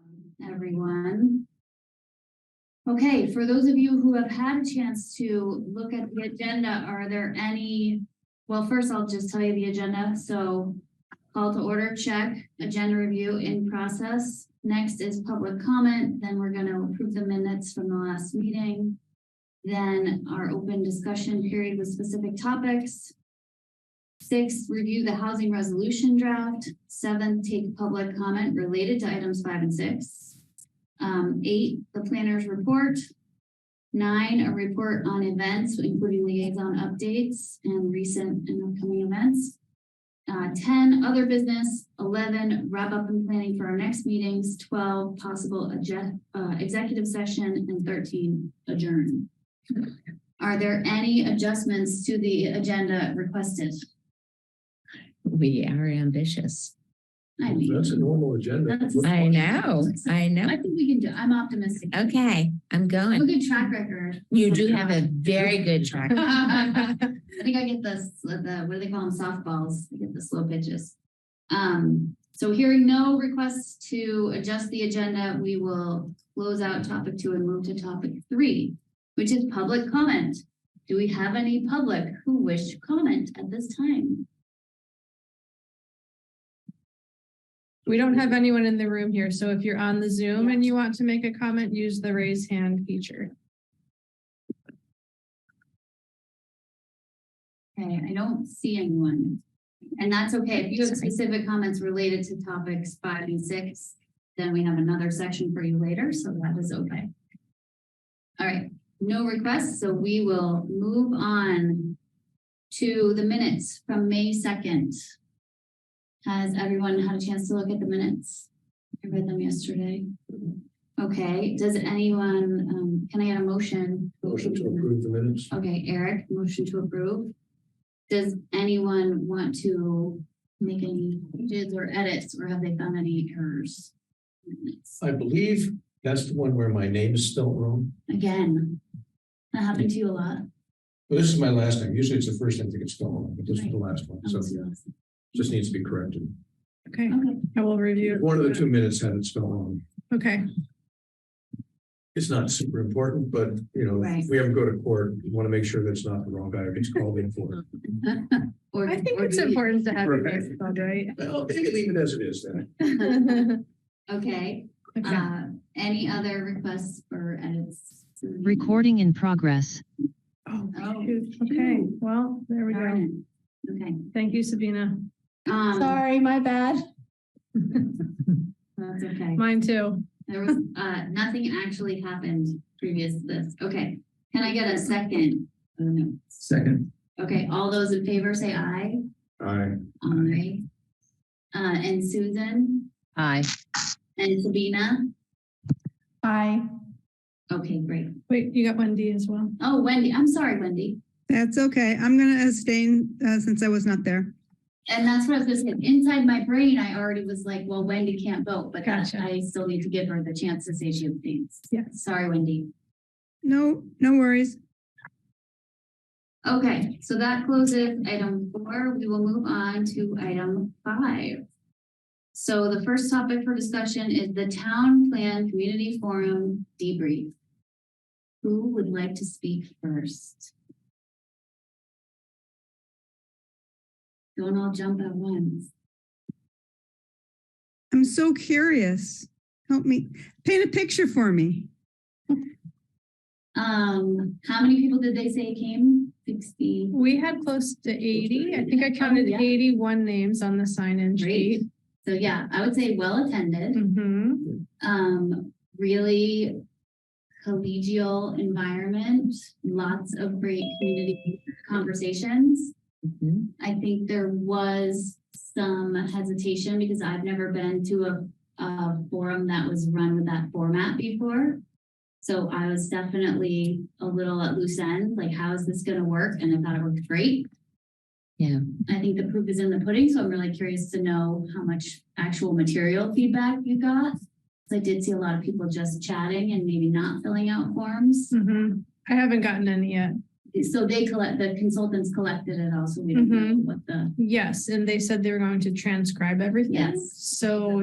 um, everyone. Okay, for those of you who have had a chance to look at the agenda, are there any? Well, first I'll just tell you the agenda. So call to order, check, agenda review in process. Next is public comment, then we're gonna approve the minutes from the last meeting. Then our open discussion period with specific topics. Six, review the housing resolution draft. Seven, take public comment related to items five and six. Um, eight, the planner's report. Nine, a report on events, including liaison updates and recent and upcoming events. Uh, ten, other business. Eleven, wrap up and planning for our next meetings. Twelve, possible adje- uh, executive session, and thirteen, adjourn. Are there any adjustments to the agenda requested? We are ambitious. I mean, That's a normal agenda. That's- I know, I I know. think we can do, I'm optimistic. Okay, I'm I have a going. good track record. You do have a very good track. I think I get the, s- the, what do they call them, softballs, I get the slow pitches. Um, so hearing no requests to adjust the agenda, we will close out topic two and move to topic three, which is public comment. Do we have any public who wish to comment at this time? We don't have anyone in the room here, so if you're on the Zoom and you want to make a comment, use the raise hand feature. Okay, I don't see anyone. And that's okay. If you have Sorry. specific comments related to topics five and six, then we have another section for you later, so that is okay. All right, no requests, so we will move on to the minutes from May second. Has everyone had a chance to look at the minutes? I read them yesterday. Mm-hmm. Okay, does anyone, um, can I get a motion? Motion to approve the minutes. Okay, Eric, motion to approve. Does anyone want to make any changes or edits, or have they found any errors? I believe that's the one where my name is spelled wrong. Again, that happened to you a lot. Well, This is my last name. Usually it's the first name that gets spelled wrong, but this is the last one. That So was yours. just needs to be corrected. Okay, Okay, I will review. it. One of the two minutes had it spelled wrong. Okay, It's not super important, but you know, Right. we have to go to court. We want to make sure that's not the wrong guy who gets called in for. it. or- I think or it's do we- important to have you Right. guys involved, right? Uh-huh. Well, take it, leave it as it is then. Okay, Okay, uh, any other requests for edits? Recording in progress. Oh, oh, shoot. okay, shoot. well, there we go. Darn it. Okay. Thank you, Sabina. um, Sorry, my bad. That's okay. Mine too. There was, uh, nothing actually happened previous to this. Okay, can I get a second? Oh, no. Second. Okay, all those in favor say aye. Aye. Aye. Uh, and Susan Hi. and Sabina. Aye. Okay, great. Wait, you got Wendy as well. Oh, Wendy, I'm sorry, Wendy. That's okay. I'm gonna abstain uh, since I was not there. And that's what I was gonna say. Inside my brain, I already was like, well, Wendy can't vote, but that- Gotcha. I still need to give her the chance to say she abstains. Yes. Sorry, Wendy. No, no worries. Okay, so that closes item four. We will move on to item five. So the first topic for discussion is the Town Plan Community Forum debrief. Who would like to speak first? Don't all jump at once. I'm so curious. Help me paint a picture for me. Um, how many people did they say came? Sixty? We had close to eighty. I think Oh, I counted Yeah. eighty-one names on the sign-in Great. sheet. So yeah, I would say well attended. hmm um, really collegial environment, lots of great community conversations. Mhm. I think there was some hesitation because I've never been to a, a forum that was run with that format before. So I was definitely a little at loose end, like, how is this gonna work? And I thought it worked great. Yeah. I think the proof is in the pudding, so I'm really curious to know how much actual material feedback you got. 'Cause I did see a lot of people just chatting and maybe not filling out forms. hmm I haven't gotten any yet. So they collect, the consultants collected it also, we don't know what the Yes, and they said they were going to transcribe everything. Yes. So